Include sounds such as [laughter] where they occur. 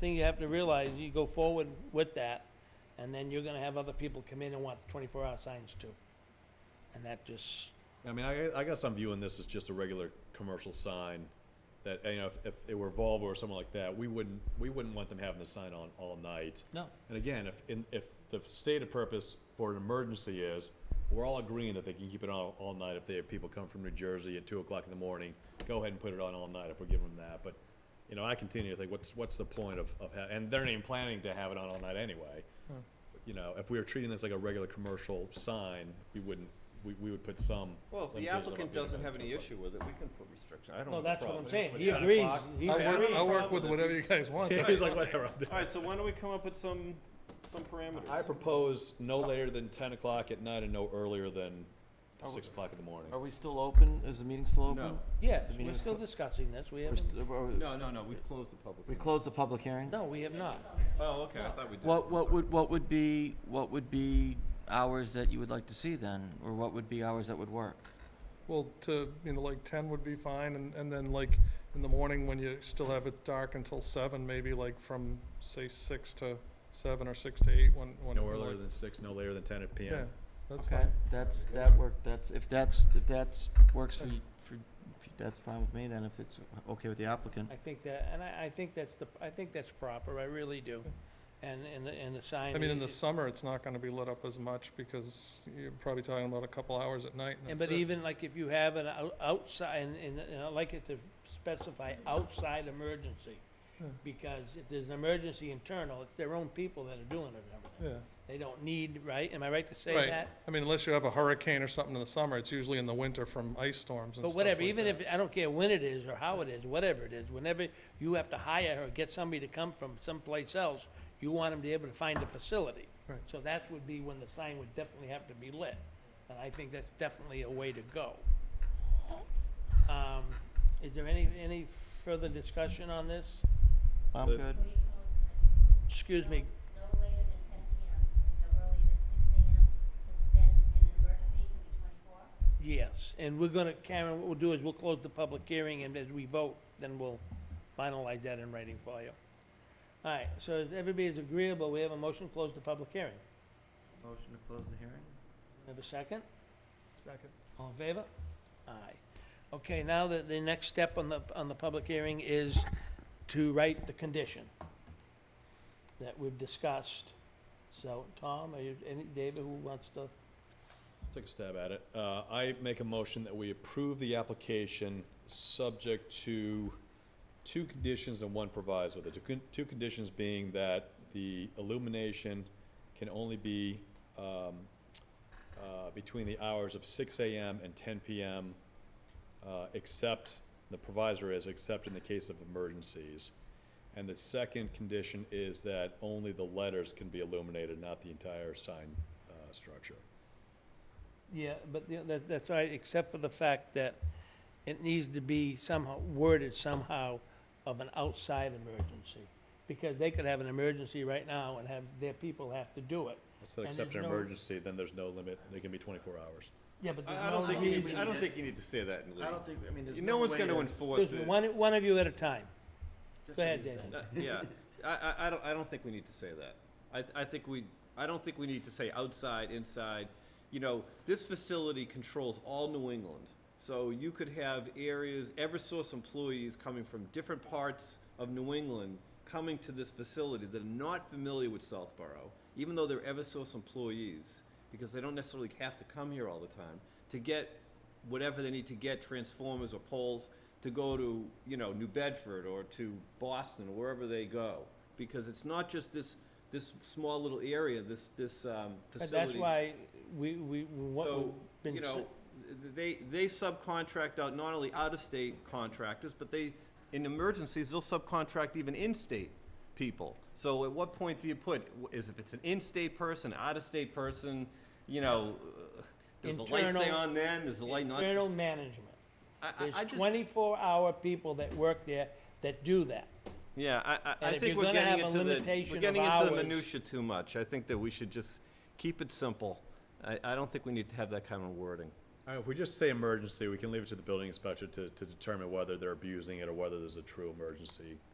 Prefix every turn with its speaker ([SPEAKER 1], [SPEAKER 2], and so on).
[SPEAKER 1] thing you have to realize, you go forward with that, and then you're gonna have other people come in and want the twenty-four hour signs too. And that just,
[SPEAKER 2] I mean, I, I guess I'm viewing this as just a regular commercial sign that, you know, if, if it were Volvo or someone like that, we wouldn't, we wouldn't want them having the sign on all night.
[SPEAKER 1] no,
[SPEAKER 2] And again, if, in, if the stated purpose for an emergency is, we're all agreeing that they can keep it on all night if they have people come from New Jersey at two o'clock in the morning, go ahead and put it on all night if we're giving them that, but, you know, I continue to think, what's, what's the point of, of, ha- and they're not even planning to have it on all night anyway. You know, if we were treating this like a regular commercial sign, we wouldn't, we, we would put some.
[SPEAKER 3] Well, if the
[SPEAKER 2] limitations on
[SPEAKER 3] applicant
[SPEAKER 2] it being
[SPEAKER 3] doesn't
[SPEAKER 2] about
[SPEAKER 3] have
[SPEAKER 2] two [laughs]
[SPEAKER 3] any
[SPEAKER 2] o'clock.
[SPEAKER 3] issue with it, we can put restriction, I don't have
[SPEAKER 1] no,
[SPEAKER 3] a
[SPEAKER 1] that's what
[SPEAKER 3] problem.
[SPEAKER 1] I'm saying,
[SPEAKER 2] With
[SPEAKER 1] he
[SPEAKER 2] 10
[SPEAKER 1] agrees,
[SPEAKER 2] o'clock.
[SPEAKER 1] he
[SPEAKER 4] I'll work,
[SPEAKER 1] agrees.
[SPEAKER 4] I'll work
[SPEAKER 3] Problem
[SPEAKER 4] with
[SPEAKER 3] if
[SPEAKER 4] whatever you
[SPEAKER 3] he's-
[SPEAKER 4] guys want.
[SPEAKER 2] He's like, whatever, I'll do it."
[SPEAKER 3] All right, so why don't we come up with some, some
[SPEAKER 2] I
[SPEAKER 3] parameters?
[SPEAKER 2] propose no later than ten o'clock at night and no earlier than six o'clock in the morning.
[SPEAKER 5] Are we still open? Is the meeting still open?
[SPEAKER 1] Yes,
[SPEAKER 5] The meeting
[SPEAKER 1] we're
[SPEAKER 5] is
[SPEAKER 1] still
[SPEAKER 5] clo-
[SPEAKER 1] discussing this, we
[SPEAKER 5] We're
[SPEAKER 1] haven't,
[SPEAKER 5] st- are we-
[SPEAKER 3] No, no, no, we've closed the public.
[SPEAKER 5] We
[SPEAKER 3] hearing.
[SPEAKER 5] closed the public hearing?
[SPEAKER 1] no, we have not.
[SPEAKER 3] Oh, okay, I thought we did.
[SPEAKER 5] What,
[SPEAKER 3] I'm
[SPEAKER 5] what
[SPEAKER 3] sorry.
[SPEAKER 5] would, what would be, what would be hours that you would like to see then? Or what would be hours that would work?
[SPEAKER 4] Well, to, you know, like ten would be fine, and, and then like in the morning when you still have it dark until seven, maybe like from, say, six to seven or six to eight, when, when.
[SPEAKER 2] No
[SPEAKER 4] when,
[SPEAKER 2] earlier
[SPEAKER 4] like-
[SPEAKER 2] than six, no later than ten at
[SPEAKER 4] Yeah,
[SPEAKER 2] PM.
[SPEAKER 4] that's
[SPEAKER 5] Okay,
[SPEAKER 4] fine.
[SPEAKER 5] that's, that work, that's, if that's, if that's, works for, you- for, if you- that's fine with me then, if it's okay with the applicant.
[SPEAKER 1] I think that, and I, I think that's the, I think that's proper, I really do. And, and, the- and the sign.
[SPEAKER 4] I mean, in
[SPEAKER 1] i-
[SPEAKER 4] the summer, it's not gonna be lit up as much because you're probably talking about a couple hours at night
[SPEAKER 1] And
[SPEAKER 4] and that's
[SPEAKER 1] but
[SPEAKER 4] it.
[SPEAKER 1] even like if you have an ou- outside, and, and and I like it to specify outside emergency.
[SPEAKER 4] Yeah.
[SPEAKER 1] Because if there's an emergency internal, it's their own people that are doing it and everything.
[SPEAKER 4] Yeah.
[SPEAKER 1] They don't need, right? Am I right to say
[SPEAKER 4] Right.
[SPEAKER 1] that?
[SPEAKER 4] I mean, unless you have a hurricane or something in the summer, it's usually in the winter from ice storms and stuff
[SPEAKER 1] But whatever,
[SPEAKER 4] like
[SPEAKER 1] even
[SPEAKER 4] that.
[SPEAKER 1] if, I don't care when it is or how it is, whatever it is, whenever you have to hire or get somebody to come from someplace else, you want them to be able to find a facility.
[SPEAKER 4] Right.
[SPEAKER 1] So that would be when the sign would definitely have to be lit, and I think that's definitely a way to go. Um, is there any, any further discussion on this?
[SPEAKER 5] I'm
[SPEAKER 2] The-
[SPEAKER 5] good.
[SPEAKER 6] Before you close the meeting, so
[SPEAKER 1] Excuse me,
[SPEAKER 6] No no later than ten PM, no earlier than six AM, but then in an emergency, it can be twenty-four.
[SPEAKER 1] yes, and we're gonna, Karen, what we'll do is we'll close the public hearing, and as we vote, then we'll finalize that in writing for you. All right, so if everybody is agreeable, we have a motion to close the public hearing.
[SPEAKER 5] Motion to close the hearing?
[SPEAKER 1] Have a second?
[SPEAKER 4] Second.
[SPEAKER 1] All in favor? Aye. Okay, now the, the next step on the, on the public hearing is to write the condition that we've discussed. So, Tom, are you, any, David, who wants to?
[SPEAKER 2] Take a stab at it. Uh, I make a motion that we approve the application, subject to two conditions and one proviso. The two con- two conditions being that the illumination can only be um, uh, between the hours of six AM and ten PM, uh, except, the provisor is, except in the case of emergencies. And the second condition is that only the letters can be illuminated, not the entire sign uh, structure.
[SPEAKER 1] Yeah, but the- that, that's right, except for the fact that it needs to be somehow worded somehow of an outside emergency. Because they could have an emergency right now and have, their people have to do it.
[SPEAKER 2] Instead
[SPEAKER 1] And
[SPEAKER 2] of except
[SPEAKER 1] there's
[SPEAKER 2] an
[SPEAKER 1] no-
[SPEAKER 2] emergency, then there's no limit, it can be twenty-four hours.
[SPEAKER 1] Yeah, but
[SPEAKER 3] I I don't think you
[SPEAKER 5] need
[SPEAKER 3] need,
[SPEAKER 5] to-
[SPEAKER 3] I don't think you need to say that in legal.
[SPEAKER 5] think, I mean,
[SPEAKER 3] No one's gonna enforce it.
[SPEAKER 1] One, one of you at a time. Go ahead, David.
[SPEAKER 3] Uh, Yeah, I, I, I don't, I don't think we need to say that. I, th- I think we, I don't think we need to say outside, inside. You know, this facility controls all New England. So you could have areas, Eversource employees coming from different parts of New England coming to this facility that are not familiar with Southborough, even though they're Eversource employees, because they don't necessarily have to come here all the time, to get whatever they need to get, transformers or poles, to go to, you know, New Bedford or to Boston or wherever they go. Because it's not just this, this small little area, this, this, um,
[SPEAKER 1] But
[SPEAKER 3] facility.
[SPEAKER 1] that's why we, we, what we've
[SPEAKER 3] So,
[SPEAKER 1] been.
[SPEAKER 3] you
[SPEAKER 1] s-
[SPEAKER 3] know, th- they, they subcontract out not only out-of-state contractors, but they, in emergencies, they'll subcontract even in-state people. So at what point do you put, w- is if it's an in-state person, out-of-state person, you know, uh, does the light stay
[SPEAKER 1] Internal-
[SPEAKER 3] on then, does the light not?
[SPEAKER 1] Internal management.
[SPEAKER 3] I- I- I
[SPEAKER 1] There's
[SPEAKER 3] just-
[SPEAKER 1] twenty-four hour people that work there that do that.
[SPEAKER 3] Yeah, I, I, I
[SPEAKER 1] And if
[SPEAKER 3] think
[SPEAKER 1] you're
[SPEAKER 3] we're
[SPEAKER 1] gonna
[SPEAKER 3] getting
[SPEAKER 1] have a
[SPEAKER 3] into the,
[SPEAKER 1] limitation
[SPEAKER 3] we're
[SPEAKER 1] of
[SPEAKER 3] getting into the
[SPEAKER 1] hours-
[SPEAKER 3] minutia too much. I think that we should just keep it simple. I, I don't think we need to have that kind of wording.
[SPEAKER 2] All right, if we just say emergency, we can leave it to the building inspector to, to determine whether they're abusing it or whether there's a true emergency